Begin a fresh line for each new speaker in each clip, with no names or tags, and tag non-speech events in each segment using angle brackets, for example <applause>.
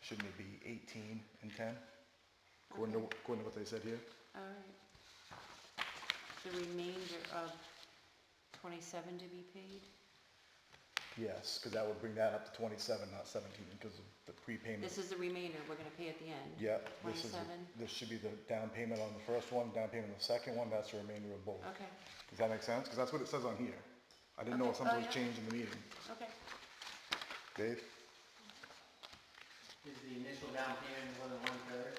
shouldn't it be 18 and 10? According to, according to what they said here?
All right. The remainder of twenty-seven to be paid?
Yes, because that would bring that up to 27, not 17, because of the prepayment.
This is the remainder we're gonna pay at the end?
Yep, this is, the-
27?
this should be the down payment on the first one, down payment on the second one, that's the remainder of both.
Okay,
Does that make sense? Because that's what it says on here. I didn't know if
Okay.
something
Oh,
was
yeah.
changed in the meeting.
okay.
Dave?
Is the initial down payment more than one third?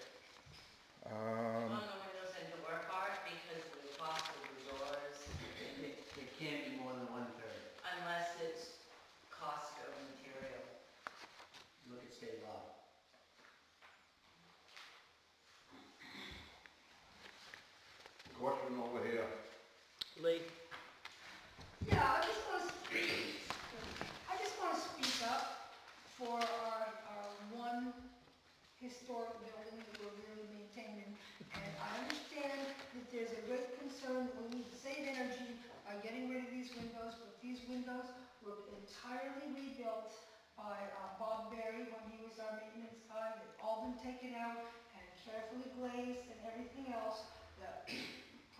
Um,
One of those had to work hard because of the cost of the doors,
It, it can't be more than one third.
unless it's cost of material.
Look at state law.
Question over here.
Lee?
Yeah, I just want to, I just want to speak up for our, our one historic building that we're really maintaining. And I understand that there's a great concern, that we need to save energy by getting rid of these windows, but these windows were entirely rebuilt by uh, Bob Berry when he was our maintenance guy. They've all been taken out and carefully glazed and everything else. The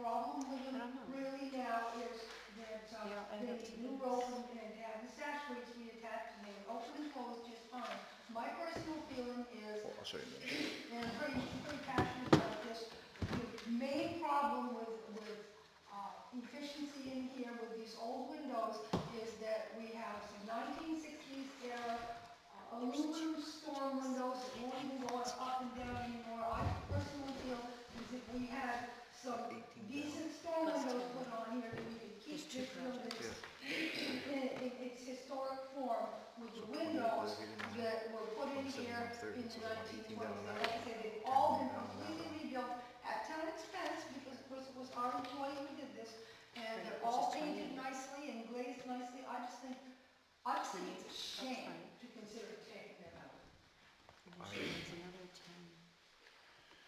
problem with
I don't
them
know.
really now is that uh,
Yeah, I
they
have to do
new roll
this.
and and have the sash rates reattached and they open and close just fine. My personal feeling is
I'll show you. in a minute.
and I'm pretty, pretty passionate about this. The main problem with, with, uh, efficiency in here with these old windows is that we have some nineteen sixties era uh, aluminum storm windows that won't even go up and down anymore. I personally feel is if we had some decent storm
Plus
windows
ten.
put on here, that we could keep
There's two
this building
projects.
<clears throat> in, in its historic form with the windows that were put in here in the nineteen twenties. And like I said, they've all been completely rebuilt at town expense because it was, was our employee who did this. And they're all painted nicely and glazed nicely. I just think, I just think it's a shame to consider taking them out.
And then she wants another ten.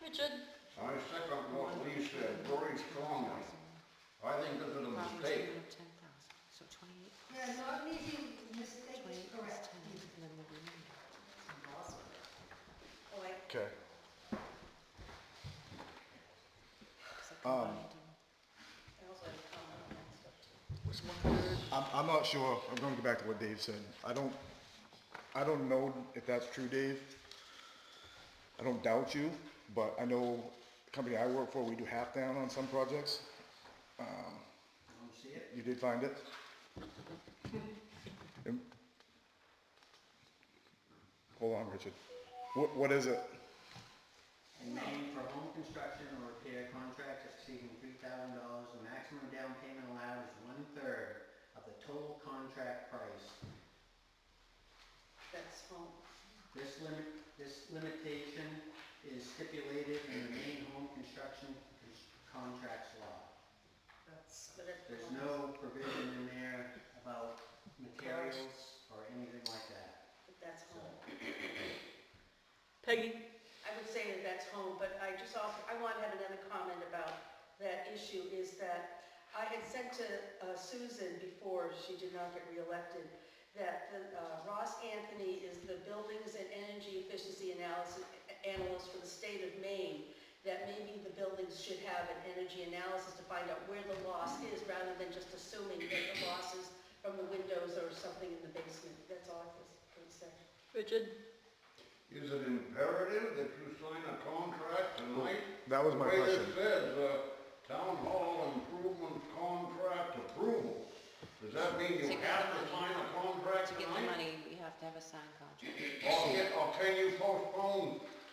Richard?
I second what Lee said very strongly. I think this is a
Property
mistake.
of ten thousand, so twenty-eight,
Yeah, not an easy mistake to
twenty-eight plus
correct.
ten, and then the remainder.
Like,
Okay. Um,
So combined,
that was like, um,
it's one third.
I'm, I'm not sure, I'm gonna go back to what Dave said. I don't, I don't know if that's true, Dave. I don't doubt you, but I know the company I work for, we do half down on some projects.
I don't see it.
You did find it? Um, Hold on, Richard. What, what is it?
A name for home construction or repair contracts exceeding three thousand dollars, the maximum down payment allowed is one third of the total contract price.
that's home.
This limit, this limitation is stipulated in the main home construction cons- contracts law.
That's whatever.
There's no provision in there about materials or anything like that.
That's home.
Peggy,
I would say that that's home, but I just also, I want to have another comment about that issue, is that I had sent to uh, Susan before she did not get reelected, that the, uh, Ross Anthony is the Buildings and Energy Efficiency Analysis Analyst for the state of Maine, that maybe the buildings should have an energy analysis to find out where the loss is, rather than just assuming that the loss is from the windows or something in the basement. That's all I was going to say.
Richard,
Is it imperative that you sign a contract tonight?
That was my
The way
question.
this says, uh, town hall improvement contract approval. Does that mean you
To get the
have to sign
money.
a contract
To
tonight?
get the money, we have to have a signed contract.
Or can, or can you postpone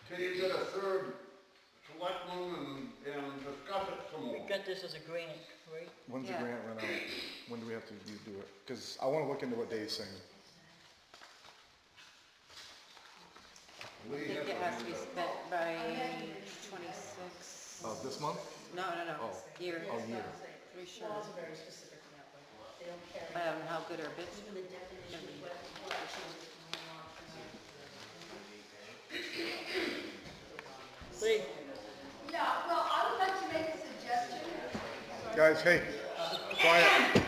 till you get a third selectman and, and discuss it some
we
more?
got this as a grant, right?
When's the
Yeah.
grant run out? When do we have to do- do it? Because I wanna look into what Dave's saying.
I
Lee
think
has
it
a
has to be
hand up.
spent by
Oh,
twenty-six.
Uh, this month?
No, no, no,
Oh.
year,
Oh, yeah.
pretty sure.
Laws are very specific in that way. They don't care.
I don't know how good or bad.
Even the definition of what, what changes going on.
Lee,
Yeah, well, I would like to make a suggestion.
Guys, hey, quiet.